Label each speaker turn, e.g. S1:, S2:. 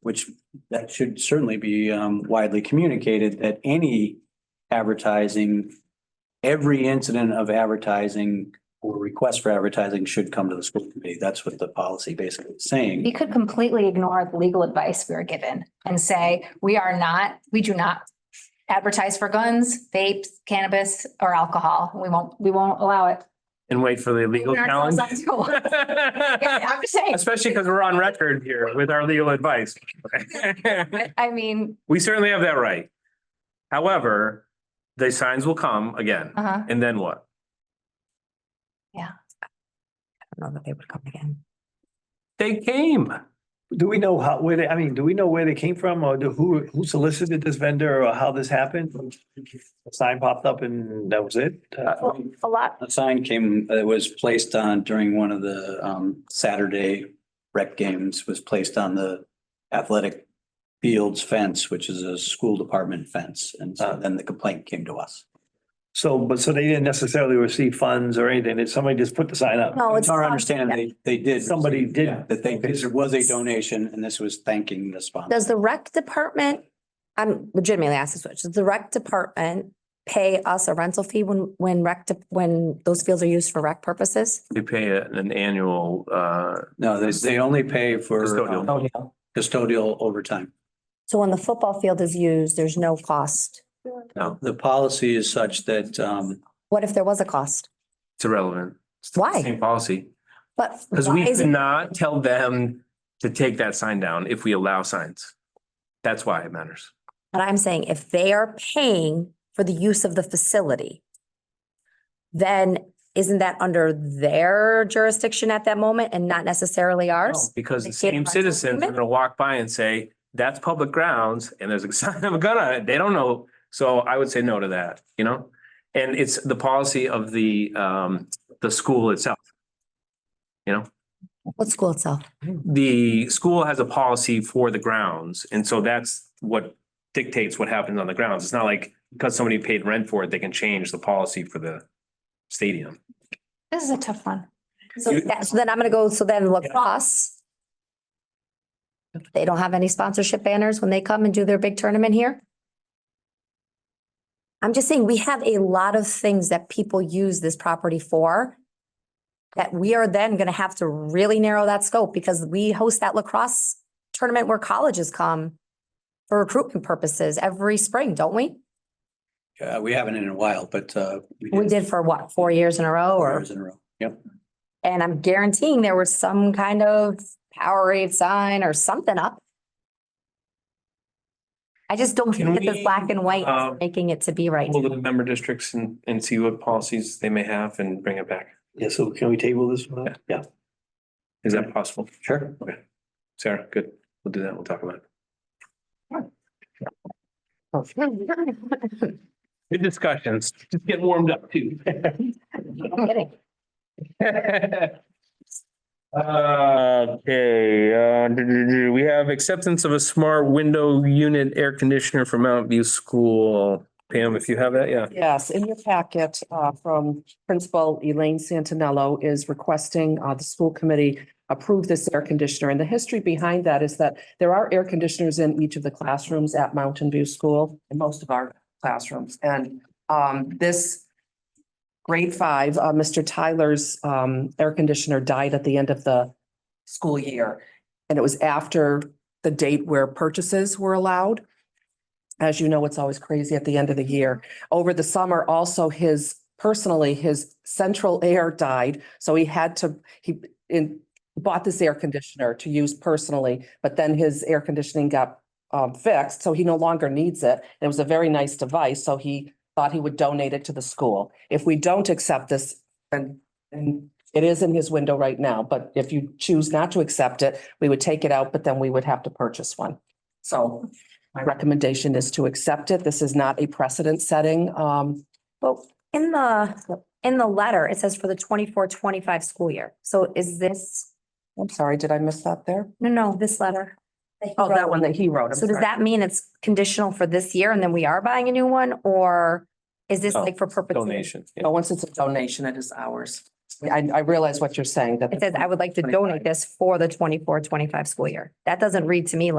S1: which that should certainly be um, widely communicated that any advertising, every incident of advertising or request for advertising should come to the school committee. That's what the policy basically is
S2: We
S1: saying.
S2: could completely ignore the legal advice we were given and say, we are not, we do not advertise for guns, vapes, cannabis, or alcohol. We won't, we won't allow it.
S3: And wait for the legal
S2: Open ourselves
S3: challenge.
S2: up to one. Yeah, I'm just saying,
S3: Especially because we're on record here with our legal advice.
S2: I mean,
S3: We certainly have that right. However, the signs will come again,
S2: uh-huh.
S3: and then what?
S4: know that they would come again.
S3: They came.
S5: Do we know how, where they, I mean, do we know where they came from or do- who, who solicited this vendor or how this happened? A sign popped up and that was it? Uh,
S4: A lot.
S1: A sign came, it was placed on during one of the um, Saturday rec games, was placed on the athletic fields fence, which is a school department fence. And so then the complaint came to us.
S5: So, but so they didn't necessarily receive funds or anything. Did somebody just put the sign up?
S4: No, Oh, it's.
S1: It's our understanding they, they did.
S5: Somebody did.
S1: That they, this was a donation and this was thanking the sponsor.
S4: Does the rec department, I'm legitimately asking this, does the rec department pay us a rental fee when, when rec, de- when those fields are used for rec purposes?
S3: They pay a- an annual, uh,
S1: No, they, they only pay for
S3: Custodial.
S1: um, custodial overtime.
S4: So when the football field is used, there's no cost.
S1: The policy is such that, um,
S4: What if there was a cost?
S3: it's irrelevant. It's the
S4: Why?
S3: Same policy.
S4: But.
S3: Because
S4: why
S3: we
S4: is it-
S3: cannot tell them to take that sign down if we allow signs. That's why it matters.
S4: But I'm saying if they are paying for the use of the facility, then isn't that under their jurisdiction at that moment and not necessarily ours?
S3: Because
S4: They
S3: the
S4: can't
S3: same
S4: buy
S3: citizens are
S4: something?
S3: gonna walk by and say, that's public grounds and there's a sign of a gun on it. They don't know. So I would say no to that, you know? And it's the policy of the um, the school itself.
S4: What school itself?
S3: The school has a policy for the grounds. And so that's what dictates what happens on the grounds. It's not like because somebody paid rent for it, they can change the policy for the stadium.
S2: This is a tough one.
S4: So that, so then I'm gonna go, so then lacrosse. They don't have any sponsorship banners when they come and do their big tournament here? I'm just saying, we have a lot of things that people use this property for. That we are then gonna have to really narrow that scope because we host that lacrosse tournament where colleges come. For recruitment purposes every spring, don't we?
S1: uh, we haven't in a while, but, uh.
S4: We did for what, four years in a row
S1: four
S4: or?
S1: years in a row. Yep.
S4: And I'm guaranteeing there was some kind of Powerade sign or something up. I just don't
S3: Can
S4: think that the
S3: we,
S4: black and white
S3: um,
S4: is making it to be right.
S3: Pull the member districts and and see what policies they may have and bring it back.
S5: Yeah, so can we table this one? Yeah.
S3: Is that possible?
S1: Sure.
S3: Sarah, good. We'll do that. We'll talk about it. Good discussions. Just get warmed up too.
S4: I'm kidding.
S3: Okay, uh, do, do, do. we have acceptance of a smart window unit air conditioner for Mountain View School. Pam, if you have that, yeah.
S6: Yes, in your packet uh, from Principal Elaine Santinello is requesting uh, the school committee approve this air conditioner. And the history behind that is that there are air conditioners in each of the classrooms at Mountain View School, in most of our classrooms. And um, this grade five, uh, Mr. Tyler's um, air conditioner died at the end of the school year. And it was after the date where purchases were allowed. As you know, it's always crazy at the end of the year over the summer, also his personally, his central air died. So he had to, he in, bought this air conditioner to use personally, but then his air conditioning got um, fixed, so he no longer needs it. It was a very nice device, so he thought he would donate it to the school. If we don't accept this, and, and it is in his window right now, but if you choose not to accept it, we would take it out, but then we would have to purchase one. So my recommendation is to accept it. This is not a precedent setting. Um,
S4: Well, in the, in the letter, it says for the 24-25 school year. So is this,
S6: I'm sorry, did I miss that there?
S4: no, no, this letter. he
S6: Oh, that
S4: wrote.
S6: one that he wrote. I'm
S4: So does
S6: sorry.
S4: that mean it's conditional for this year and then we are buying a new one or is this
S3: No,
S4: like for perpetuity?
S3: Donation.
S6: No, once it's a donation, it is ours. I, I realize what you're saying that.
S4: It says, I would like to
S6: 25.
S4: donate this for the 24-25 school year. That doesn't read to me like.